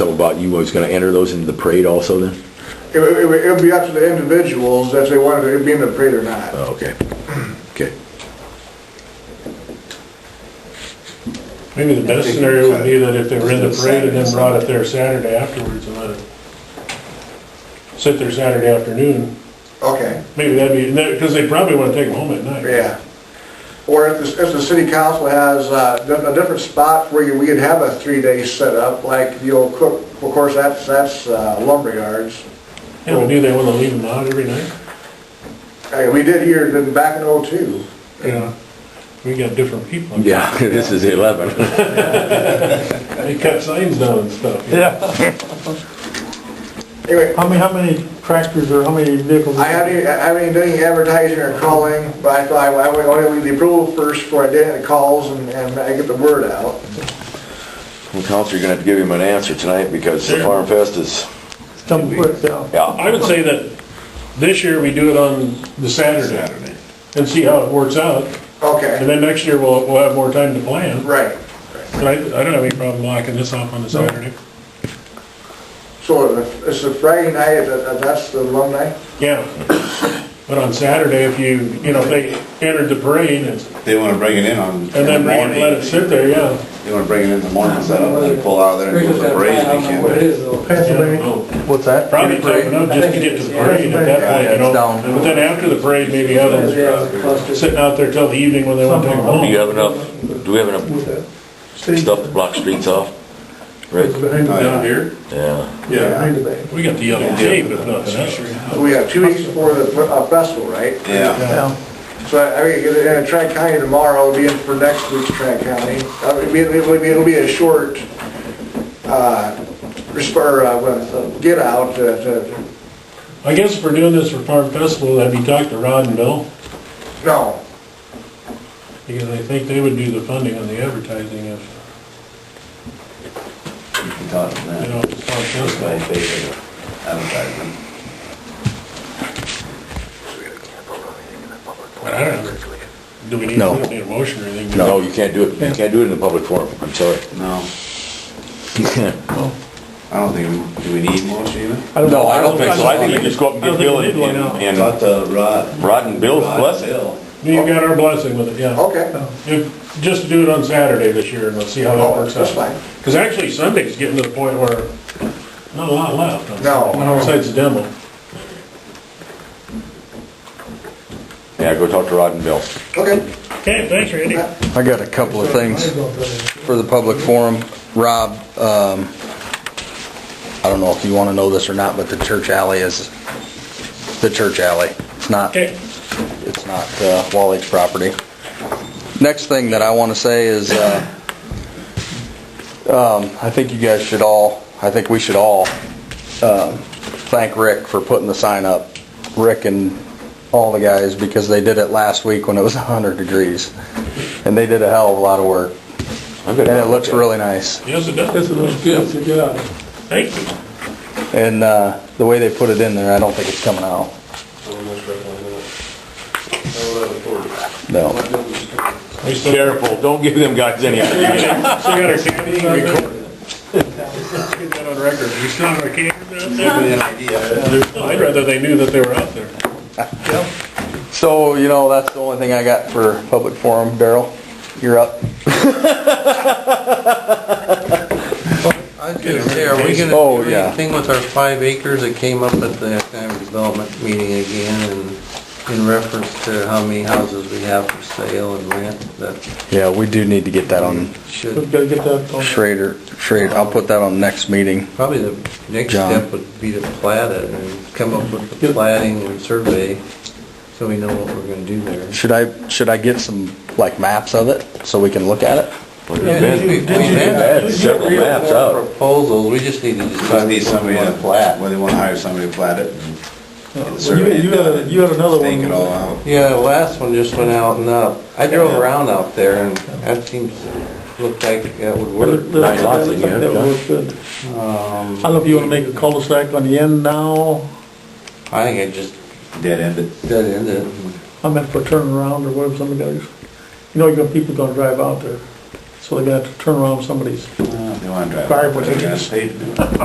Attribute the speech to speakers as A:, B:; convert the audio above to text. A: About you was gonna enter those into the parade also then?
B: It would, it would- it would be up to the individuals if they wanted to be in the parade or not.
A: Oh, okay, okay.
C: Maybe the best scenario would be that if they were in the parade and then brought it there Saturday afterwards and let it sit there Saturday afternoon,
B: Okay,
C: maybe that'd be, because they probably want to take them home at night.
B: yeah. Or if the, if the city council has uh, di- a different spot where you- we could have a three-day setup, like the old Cook, of course, that's, that's uh, lumberyards.
C: Yeah, but do they want to leave them out every night?
B: Hey, Uh, We did here, then back in '02.
C: Yeah. We got different people.
A: Yeah, this is eleven.
C: They cut signs down and stuff. you know.
D: Yeah,
B: Anyway,
D: how many, how many tractors or how many vehicles?
B: I haven't, I haven't done any advertising or calling, but I thought I would only leave the approval first before I did any calls and, and I get the word out.
A: Well, Counselor, you're gonna have to give him an answer tonight because the
C: Sure.
A: Farm Fest is,
D: Some put down.
A: yeah,
C: I would say that this year we do it on the Saturday and see how it works out. And
B: Okay,
C: then next year we'll, we'll have more time to plan.
B: right.
C: But I, I don't have any problem locking this off on the Saturday.
B: So it's a Friday night, that- that's the alumni?
C: Yeah. But on Saturday, if you, you know, if they entered the parade and
E: They wanna bring it in on.
C: and then bring it- let it sit there, yeah.
E: They wanna bring it in the morning, so that they pull out of there and go to the parade, they can't.
D: What's that?
C: Probably tough enough just to get to the parade at that point, you know. But then after the parade, maybe have them sitting out there till the evening when they want to take them
F: Do you
C: home.
F: have enough, do we have enough stuff to block streets off? Rick?
C: Down here,
F: Yeah,
E: Yeah,
C: we got the yellow tape if nothing else.
B: We have two weeks before the uh, festival, right?
E: yeah,
D: Yeah.
B: So I mean, in uh, Tri-County tomorrow, it'll be in for next week's Tri-County. Uh, It'll be, it'll be- it'll be a short, uh, resp- or, uh, what, uh, get out uh, to,
C: I guess if we're doing this for Farm Festival, have you talked to Rod and Bill?
B: no,
C: Because I think they would do the funding on the advertising if,
E: you can talk to
C: you
E: them.
C: know, if it's Farm Festival.
E: They- they advertise them.
C: But I don't know. Do we need,
A: No.
C: we don't need a motion or anything?
A: no, you can't do it, you can't do it in the public forum, I'm sorry.
E: No, I don't think, we- do we need motion even?
A: No, I don't think so, I think you just go up and
C: I
A: get
C: don't think
A: Bill
C: we
A: and,
C: need one, no.
A: and
E: Not the Rod.
A: Rod and Bill's
E: Rod
A: blessing.
E: Hill.
C: You got our blessing with it, yeah.
B: okay,
C: If- Just do it on Saturday this year and let's see how that works out.
B: Oh, That's fine.
C: Because actually Sunday's getting to the point where not a lot left. on
B: No.
C: Sunday, Besides the demo.
A: Yeah, go talk to Rod and Bill.
B: okay.
C: Okay, thanks Randy.
G: I got a couple of things for the public forum. Rob, um, I don't know if you want to know this or not, but the church alley is the church alley. It's not,
C: Okay,
G: it's not uh, Wall Lake property. Next thing that I want to say is, uh, um, I think you guys should all, I think we should all um, thank Rick for putting the sign up. Rick and all the guys, because they did it last week when it was 100 degrees. And they did a hell of a lot of work.
A: I'm gonna-
G: And it looks really nice.
C: yes it does. This is good, so get out. Thank you.
G: And uh, the way they put it in there, I don't think it's coming out. No.
C: We still
A: Careful, don't give them guys any idea.
C: still got our cameras on there. Let's Get that on record. We still have our cameras on
E: Give
C: there?
E: me an idea.
C: I'd rather they knew that they were out there.
G: So, you know, that's the only thing I got for public forum. Daryl, you're up.
H: I was gonna say, are we gonna
G: Oh,
H: do
G: yeah.
H: anything with our five acres that came up at the economic development meeting again and in reference to how many houses we have for sale and rent that
G: Yeah, we do need to get that on
H: should,
D: Gotta get that on.
G: Schrader, Schrader. I'll put that on next meeting.
H: probably the next
G: John.
H: step would be to plat it and come up with the plating and survey so we know what we're gonna do there.
G: Should I, should I get some, like, maps of it so we can look at it?
H: We've had
A: That's several maps out.
H: proposals, we just need to
E: Just
H: decide.
E: need somebody to plat, whether they wanna hire somebody to plat it. and
C: Uh,
E: get the
D: You
E: survey
D: had- you had, a- you had another one.
E: Stake it all out.
H: Yeah, the last one just went out and up. I drove around out there and that seems, looked like that would work.
A: Nine lots in here,
D: That would
A: yeah.
D: work good. I don't know if you wanna make a cul-de-sac on the end now,
H: I think I just
E: Dead-ended.
H: dead ended it.
D: I meant for turning around or whatever somebody goes. You know, you're gonna, people gonna drive out there, so they're gonna have to turn around somebody's
C: Uh,
E: They want to drive.
D: Fire
E: They're gonna
D: brigades.
E: pay to do it.